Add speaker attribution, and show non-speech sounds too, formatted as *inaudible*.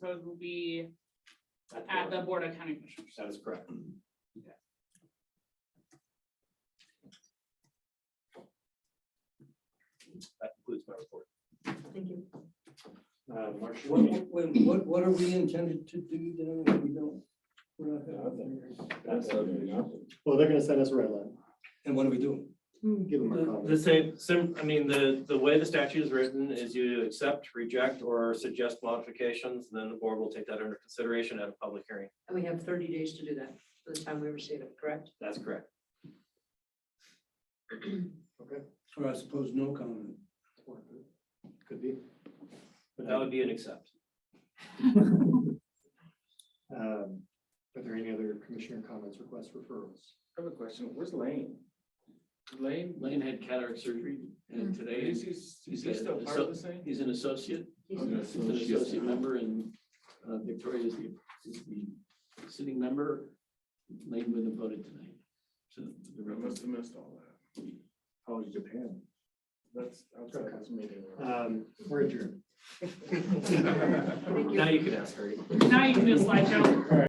Speaker 1: Road will be at the Board of County Commissioners.
Speaker 2: That is correct. That concludes my report.
Speaker 3: Thank you.
Speaker 2: Uh, Marcia,
Speaker 4: What, what, what- what are we intended to do then if we don't? we're not having-
Speaker 2: Well, they're gonna send us a red line.
Speaker 4: And what are we doing?
Speaker 2: Give them our
Speaker 5: The
Speaker 2: comments.
Speaker 5: the same, sim, I mean, the, the way the statute is written is you accept, reject, or suggest modifications, then the board will take that under consideration at a public hearing.
Speaker 3: And we have thirty days to do that, by the time we receive it, correct?
Speaker 5: That's correct.
Speaker 4: Or I suppose no comment?
Speaker 2: Could be.
Speaker 5: But that would be an accept.
Speaker 2: Um, Are there any other commissioner comments, requests, referrals?
Speaker 6: I have a question. Where's Lane? Lane? Lane had cataract surgery and today. Is he, is he still part of this thing? He's an associate,
Speaker 3: He's-
Speaker 6: an associate member and uh, Victoria is the, is the sitting member. Lane would have voted tonight. So the I must have missed all that. How was Japan? That's
Speaker 2: outside
Speaker 6: this meeting.
Speaker 2: Um, We're adjourned.
Speaker 3: Thank you.
Speaker 6: *laughs*
Speaker 5: Now you can ask, Harry.
Speaker 1: Now you can do a slideshow.